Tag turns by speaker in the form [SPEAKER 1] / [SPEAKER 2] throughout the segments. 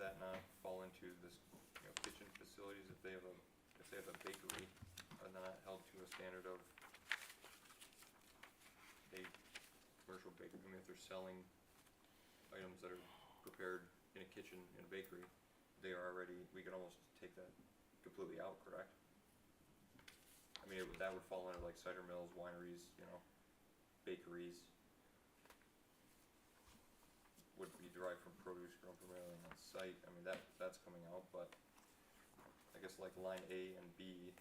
[SPEAKER 1] that not fall into this, you know, kitchen facilities if they have a, if they have a bakery, are not held to a standard of a commercial bakery, I mean, if they're selling items that are prepared in a kitchen in a bakery, they are already, we can almost take that completely out, correct? I mean, it would, that would fall under like cider mills, wineries, you know, bakeries would be derived from produce grown primarily on site, I mean, that, that's coming out, but I guess like line A and B,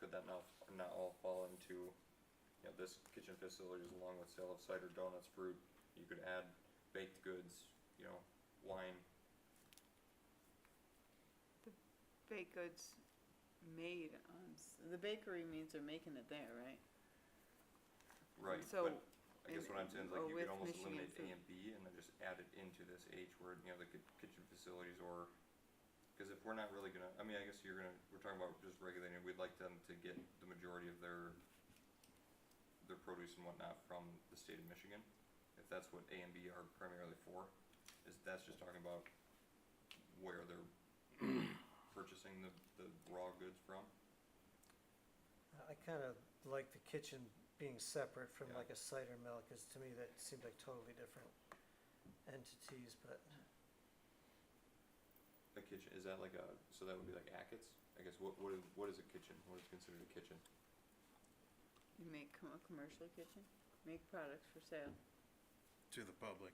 [SPEAKER 1] could that not, not all fall into, you know, this kitchen facilities along with sale of cider, donuts, fruit, you could add baked goods, you know, wine,
[SPEAKER 2] Baked goods made on, s- the bakery means they're making it there, right?
[SPEAKER 1] right,
[SPEAKER 2] So,
[SPEAKER 1] but I guess
[SPEAKER 2] and-
[SPEAKER 1] what I'm saying is
[SPEAKER 2] or
[SPEAKER 1] like you
[SPEAKER 2] with
[SPEAKER 1] could almost
[SPEAKER 2] Michigan
[SPEAKER 1] eliminate A
[SPEAKER 2] food.
[SPEAKER 1] and B and then just add it into this H word, you know, the ki- kitchen facilities or, cause if we're not really gonna, I mean, I guess you're gonna, we're talking about just regulating, we'd like them to get the majority of their, their produce and whatnot from the state of Michigan, if that's what A and B are primarily for, is that's just talking about where they're purchasing the, the raw goods from,
[SPEAKER 3] I kinda like the kitchen being separate from
[SPEAKER 1] Yeah.
[SPEAKER 3] like a cider mill, cause to me that seemed like totally different entities, but
[SPEAKER 1] a kitchen, is that like a, so that would be like Ackett's? I guess what, what is, what is a kitchen, what is considered a kitchen?
[SPEAKER 2] you make com- a commercial kitchen, make products for sale.
[SPEAKER 4] to the public.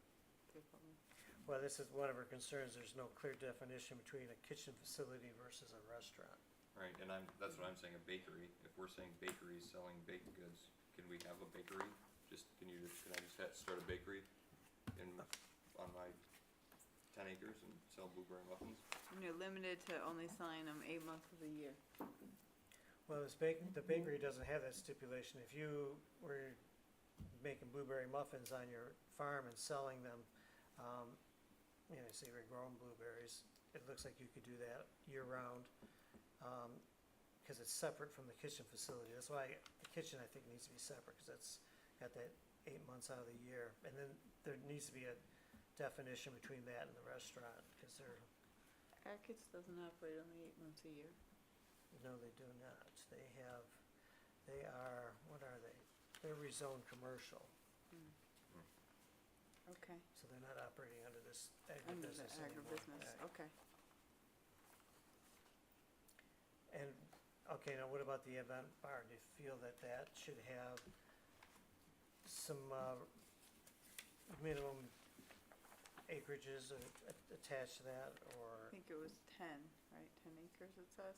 [SPEAKER 2] They're probably-
[SPEAKER 3] Well, this is one of our concerns, there's no clear definition between a kitchen facility versus a restaurant.
[SPEAKER 1] Right, and I'm, that's what I'm saying, a bakery, if we're saying bakeries selling baked goods, can we have a bakery? Just, can you, just- can I just ha- start a bakery in, on my ten acres and sell blueberry muffins?
[SPEAKER 2] And you're limited to only selling them eight months of the year.
[SPEAKER 3] Well, this bake, the bakery doesn't have that stipulation, if you were making blueberry muffins on your farm and selling them, um, you know, say you're growing blueberries, it looks like you could do that year round. Um 'cause cause it's separate from the kitchen facility, that's why the kitchen I think needs to be separate, cause that's got that eight months out of the year. And then there needs to be a definition between that and the restaurant, cause they're,
[SPEAKER 2] Ackett's doesn't operate only eight months a year.
[SPEAKER 3] no, they do not, they have, they are, what are they? They're rezoned commercial,
[SPEAKER 2] Okay.
[SPEAKER 3] so they're not operating under this
[SPEAKER 2] Under the
[SPEAKER 3] agribusiness anymore. Uh,
[SPEAKER 2] agribusiness,
[SPEAKER 3] Right.
[SPEAKER 2] okay.
[SPEAKER 3] And, okay, now what about the event bar? Do you feel that that should have some, uh, minimum acreages a- a- attached to that,
[SPEAKER 2] I
[SPEAKER 3] or,
[SPEAKER 2] think it was ten, right, ten acres it says?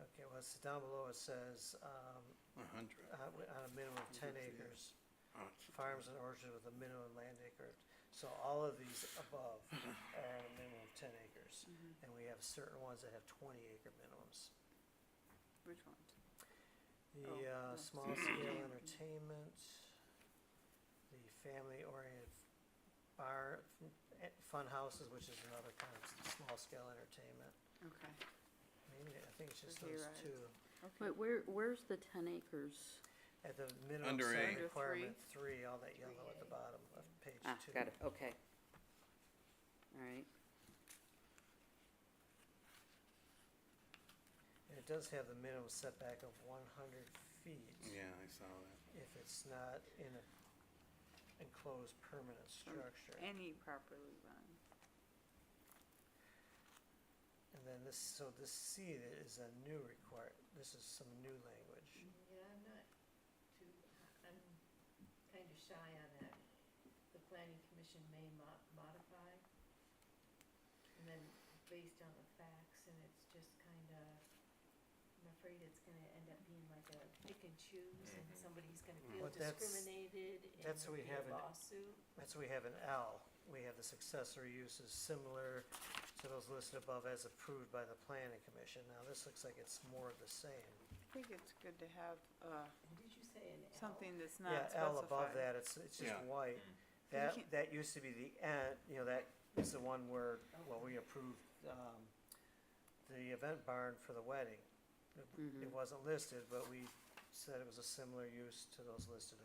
[SPEAKER 3] okay, well, it's down below it says, um,
[SPEAKER 4] A hundred.
[SPEAKER 3] uh, wi- on a minimum of ten
[SPEAKER 4] Yeah.
[SPEAKER 3] acres,
[SPEAKER 4] Oh, it's-
[SPEAKER 3] farms and orchards with a minimum land acre. So all of these above are on a minimum of ten acres,
[SPEAKER 2] Mm-hmm.
[SPEAKER 3] and we have certain ones that have twenty acre minimums.
[SPEAKER 2] Which ones? Oh,
[SPEAKER 3] The uh,
[SPEAKER 2] no.
[SPEAKER 3] small scale entertainment, the family oriented bar, eh, fun houses, which is another kind of s- small scale entertainment.
[SPEAKER 2] Okay,
[SPEAKER 3] Maybe, I think it's just
[SPEAKER 2] Okay,
[SPEAKER 3] those
[SPEAKER 2] right.
[SPEAKER 3] two.
[SPEAKER 2] okay.
[SPEAKER 5] Wait, where, where's the ten acres?
[SPEAKER 3] At the minimum
[SPEAKER 4] Under
[SPEAKER 3] setting
[SPEAKER 4] eight.
[SPEAKER 2] Under three.
[SPEAKER 3] requirement, three, all that yellow at the bottom of page two.
[SPEAKER 5] Ah, got it, okay. All right,
[SPEAKER 3] And it does have the minimum setback of one hundred feet.
[SPEAKER 4] Yeah, I saw that.
[SPEAKER 3] if it's not in an enclosed permanent structure.
[SPEAKER 2] Any properly run.
[SPEAKER 3] And then this, so this C is a new require, this is some new language.
[SPEAKER 6] Yeah, I'm not too, I'm kind of shy on that. The planning commission may mo- modify. And then based on the facts and it's just kind of, I'm afraid it's gonna end up being like a pick and choose and
[SPEAKER 1] Mhm.
[SPEAKER 6] somebody's gonna
[SPEAKER 4] Mm.
[SPEAKER 6] feel
[SPEAKER 3] But that's-
[SPEAKER 6] discriminated and
[SPEAKER 3] that's
[SPEAKER 6] there'll
[SPEAKER 3] what we
[SPEAKER 6] be
[SPEAKER 3] have
[SPEAKER 6] a
[SPEAKER 3] in-
[SPEAKER 6] lawsuit.
[SPEAKER 3] That's where we have an L, we have this accessory uses similar to those listed above as approved by the planning commission. Now, this looks like it's more of the same.
[SPEAKER 2] I think it's good to have, uh,
[SPEAKER 6] Did you say an L?
[SPEAKER 2] something that's
[SPEAKER 3] Yeah,
[SPEAKER 2] not specified.
[SPEAKER 3] L above that, it's, it's just
[SPEAKER 4] Yeah.
[SPEAKER 3] white.
[SPEAKER 1] Mm.
[SPEAKER 2] You
[SPEAKER 3] That,
[SPEAKER 2] can't-
[SPEAKER 3] that used to be the end, you know, that is the one where, well, we approved, um, the event barn for the
[SPEAKER 2] Mm-hmm.
[SPEAKER 3] wedding. It- It wasn't listed, but we said it was a similar use to those listed